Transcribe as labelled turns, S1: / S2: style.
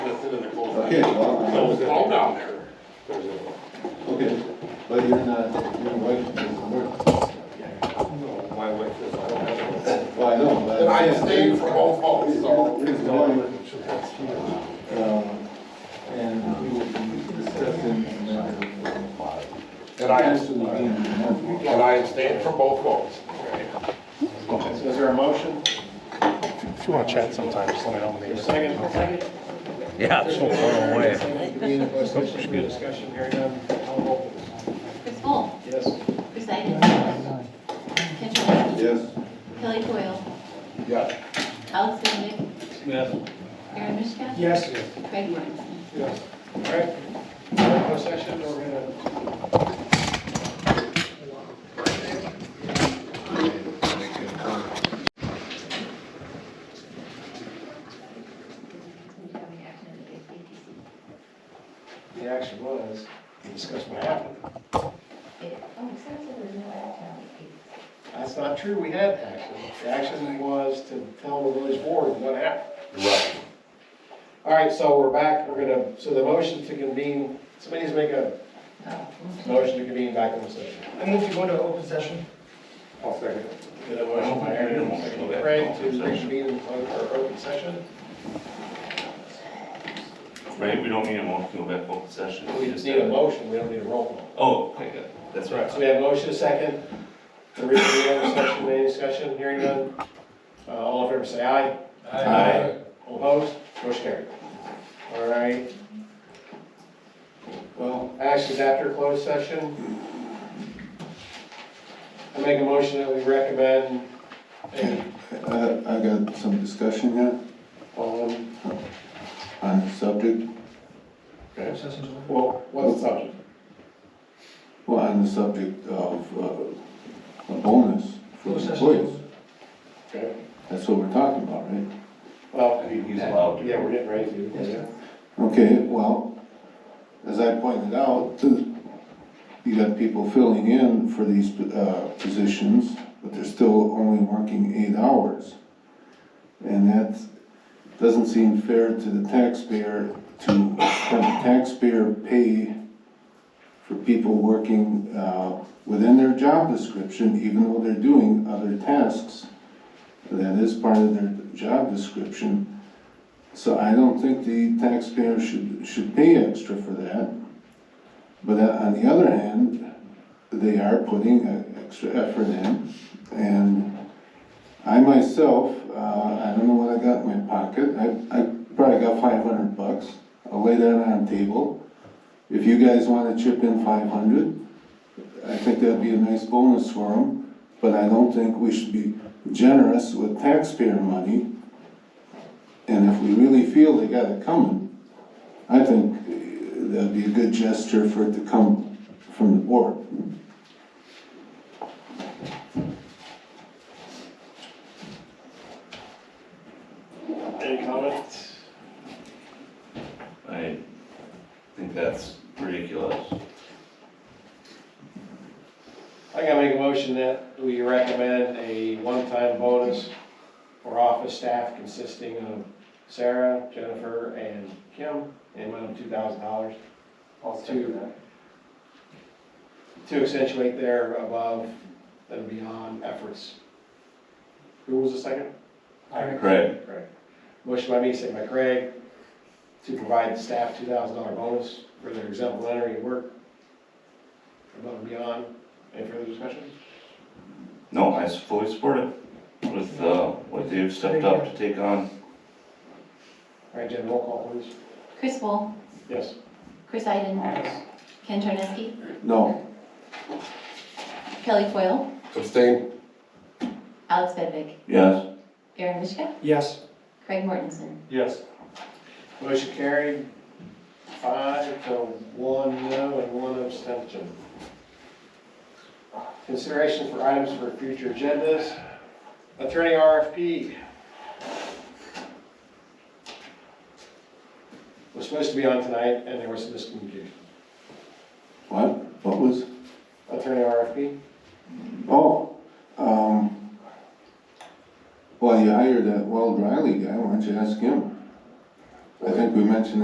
S1: Okay, well,
S2: It's all down there.
S1: okay, but you're not, your wife doesn't work.
S2: My wife says I don't have
S1: Well, I know, but.
S2: one. I abstained from all votes, so.
S1: His wife, um, and we will be discussing.
S2: And I
S1: Actually, being remote.
S2: And I abstained from both votes.
S3: So is there a motion?
S4: If you want to chat sometime, just let me know. when
S3: There's a
S4: these-
S3: second? Second.
S5: Yeah, it's so far away.
S3: Any discussion, Any discussion, hearing none, I'll roll.
S6: Chris Bull,
S3: Yes.
S6: Chris Iden. Ken Talanian.
S1: Yes.
S6: Kelly Coyle.
S2: Yes.
S6: Alex Benedict.
S3: Yes.
S6: Aaron Mishka.
S3: Yes.
S6: Craig Mortensen.
S3: Yes. All right. Regular session, we're gonna. The action was, we discussed what happened. That's not true, we had action. The action was to tell the village board what happened.
S2: Right.
S3: All right, so we're back, we're gonna, so the motion to convene, somebody needs to make a motion to convene back in the session.
S7: I move to go into open session.
S2: I'll second.
S3: Get a motion by Aaron, second by Craig to reconvene in closed or open session.
S8: Right, we don't need a motion to go back open session.
S3: We just need a motion, we don't need a roll call.
S8: Oh, okay, good. that's
S3: All right, so
S8: right.
S3: we have a motion, a second, to reconvene in open session, any discussion, hearing none? Uh, all in favor, say aye.
S8: Aye.
S3: All opposed, motion carried. All right. Well, actions after closed session. I make a motion that we recommend a,
S1: Uh, I got some discussion here
S3: um,
S1: on the subject,
S7: Open session's over.
S3: well, what's the subject?
S1: well, on the subject of, uh, a bonus for
S7: Closed session.
S1: employees.
S3: Okay.
S1: That's what we're talking about, right?
S3: Well,
S8: He's allowed to.
S3: yeah, we're getting ready to.
S1: Okay, well, as I pointed out, you got people filling in for these, uh, positions, but they're still only working eight hours. And that doesn't seem fair to the taxpayer to have the taxpayer pay for people working, uh, within their job description, even though they're doing other tasks. That is part of their job description. So I don't think the taxpayer should, should pay extra for that. But uh, on the other hand, they are putting uh, extra effort in. And I myself, uh, I don't know what I got in my pocket, I, I probably got five hundred bucks. I'll lay that on the table. If you guys wanna chip in five hundred, I think that'd be a nice bonus for them. But I don't think we should be generous with taxpayer money and if we really feel they got it coming, I think uh, that'd be a good gesture for it to come from the board.
S3: Any comments?
S8: I think that's ridiculous.
S3: I gotta make a motion that we recommend a one-time bonus for office staff consisting of Sarah, Jennifer, and Kim, in amount of two thousand dollars.
S2: I'll
S3: second to accentuate their above and beyond efforts. Who was the second?
S8: Craig,
S3: Craig. Motion by me, second by Craig, to provide the staff two thousand dollar bonus for their exemplary work above and beyond. Any further discussion?
S8: no, I fully support it with, uh, what they've stepped up to take on.
S3: All right, Jen, roll call please.
S6: Chris Bull,
S3: Yes.
S6: Chris Iden. Ken Tornitzky.
S1: No,
S6: Kelly Coyle.
S2: Abstain.
S6: Alex Benedict.
S8: Yes,
S6: Aaron Mishka.
S7: Yes.
S6: Craig Mortensen.
S2: Yes.
S3: Motion carried, five to one no and one abstention. Consideration for items for future agendas. Attorney RFP. Was supposed to be on tonight and there was some miscommunication.
S1: what, what was,
S3: Attorney RFP?
S1: oh, um, well, you hired that Weld Riley guy, why don't you ask him? I think we mentioned